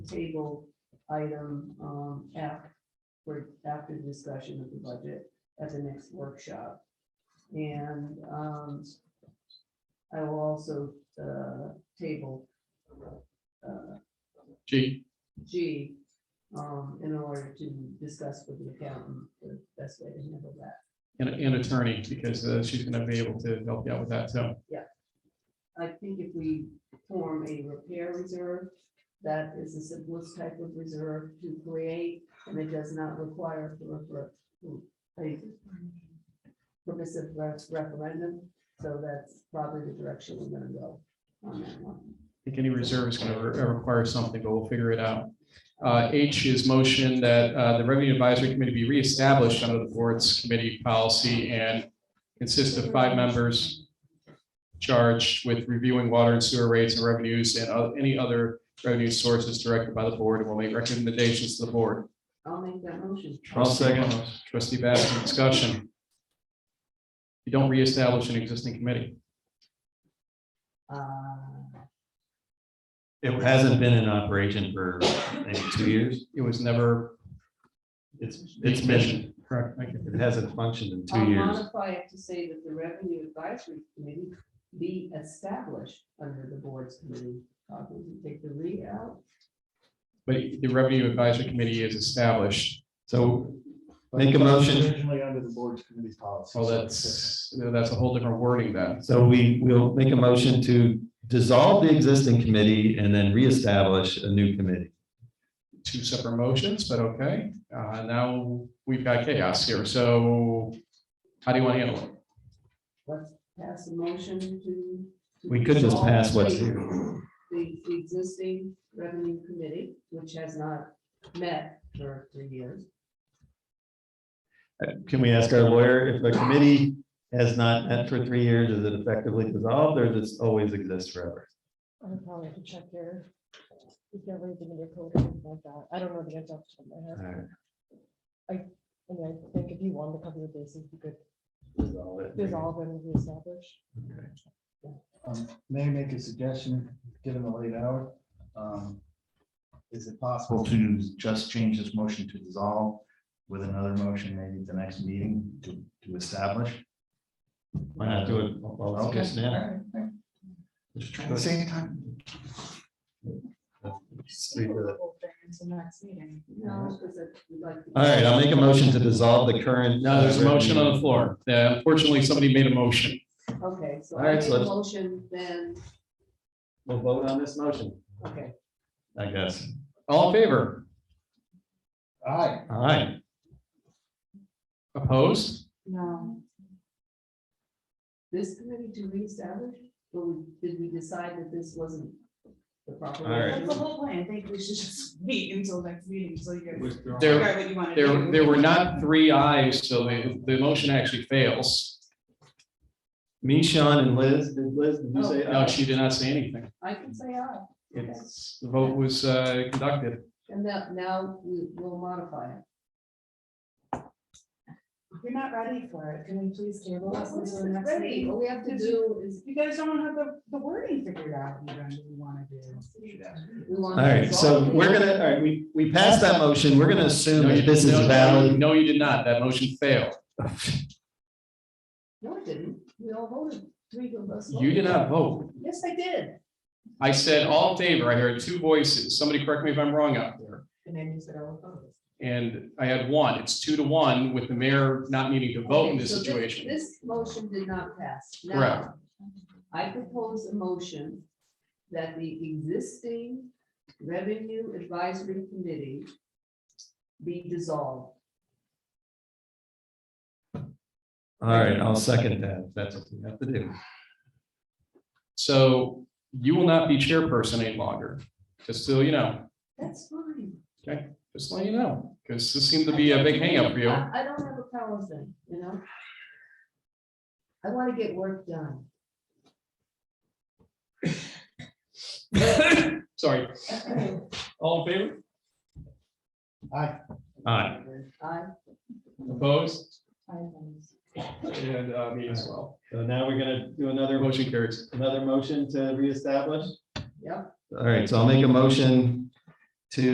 table item, um, F for after the discussion of the budget at the next workshop. And, um, I will also, uh, table, uh, G, G, um, in order to discuss with the accountant the best way to handle that. and, and attorney, because uh, she's gonna be able to help you out with that, so. I think if we form a repair reserve, that is the simplest type of reserve to create, and it does not require a refer- a permissive re- referendum, so that's probably the direction we're gonna go on that one. I think any reserve is gonna re- require something, but we'll figure it out. Uh, H is motion that, uh, the revenue advisory committee be reestablished under the board's committee policy and consist of five members charged with reviewing water and sewer rates and revenues and oth- any other revenue sources directed by the board and will make recommendations to the board. I'll make that motion. I'll second. Trustee Baskin, discussion. You don't reestablish an existing committee. Uh, It hasn't been in operation for maybe two years. It was never. It's, it's been, Correct. thank you. it hasn't functioned in I'll two years. modify it to say that the revenue advisory committee be established under the board's committee. Uh, we can Take the re out. But the revenue advisory committee is established. So But Make a it's motion. Originally under the board's committee policy. Well, Oh, that's, that's a whole different wording then. So we will make a motion to dissolve the existing committee and then reestablish a new committee. Two separate motions, but okay. Uh, now we've got chaos here. So how do you want to handle it? Let's pass a motion to. to We could just dissolve pass what's the- here. The the existing revenue committee, which has not met for three years. Can we ask our lawyer if a committee has not met for three years, is it effectively dissolved or does it always exist forever? I would probably have to check your, if you have anything in your code or anything like that. I don't know the answer off the top of my All head. right, And I think if you wanted to cover your bases, you could dissolve it. dissolve and reestablish. Um, May I make a suggestion, given the late hour? Um, Is it possible to just change this motion to dissolve with another motion maybe at the next meeting to, to establish? Why not do it? all- all just now? Just trying to save time. Just leave it. No, because we'd like. to- All right, I'll make a motion to dissolve the current. No, there's a motion on the floor. Uh, Unfortunately, somebody made a motion. Okay, so All I right, made so a let's- motion then, We'll vote on this motion, okay, I guess. All in favor? Aye. All right. Opposed? No. this committee to reestablish, or we- did we decide that this wasn't the proper? All right. That's the whole point. I think we should just wait until next meeting, until you guys. There, figure out what you wanna there, do. there were not three ayes, so the, the motion actually fails. Me, Sean, and Liz, did Liz, did you say? No, she did not say anything. I can say aye, It's, the vote was uh, conducted. and now, now we will modify it. You're not ready for it. Can we please table this until the next Ready, meeting? all we have to do is, You guys don't have the, the wording figured out. You don't really wanna do. we want. All right, so we're gonna, all right, we, we passed that motion. We're gonna assume No, you- that this is no, no, valid. No, you did not. That motion failed. No, it didn't, we all voted, three of us. You did voted. not vote. Yes, I did. I said all in favor. I heard two voices. Somebody correct me if I'm wrong out there. And then you said all opposed. And I had one. It's two to one with the mayor not needing to vote in this situation. This motion did not pass. Now, Correct. I propose a motion that the existing revenue advisory committee be dissolved. All right, I'll second that. if That's what we have to do. So you will not be chairperson any longer, just so you know, That's fine. just letting you know, because this seemed to be a big hangup for you. I, I don't have a power thing, you know? I want to get work done. Sorry. All in favor? Aye. All right, I, Opposed? I, And uh, me as well. so now we're gonna do another, Motion carries. another motion to reestablish? yep, All right, so I'll make a motion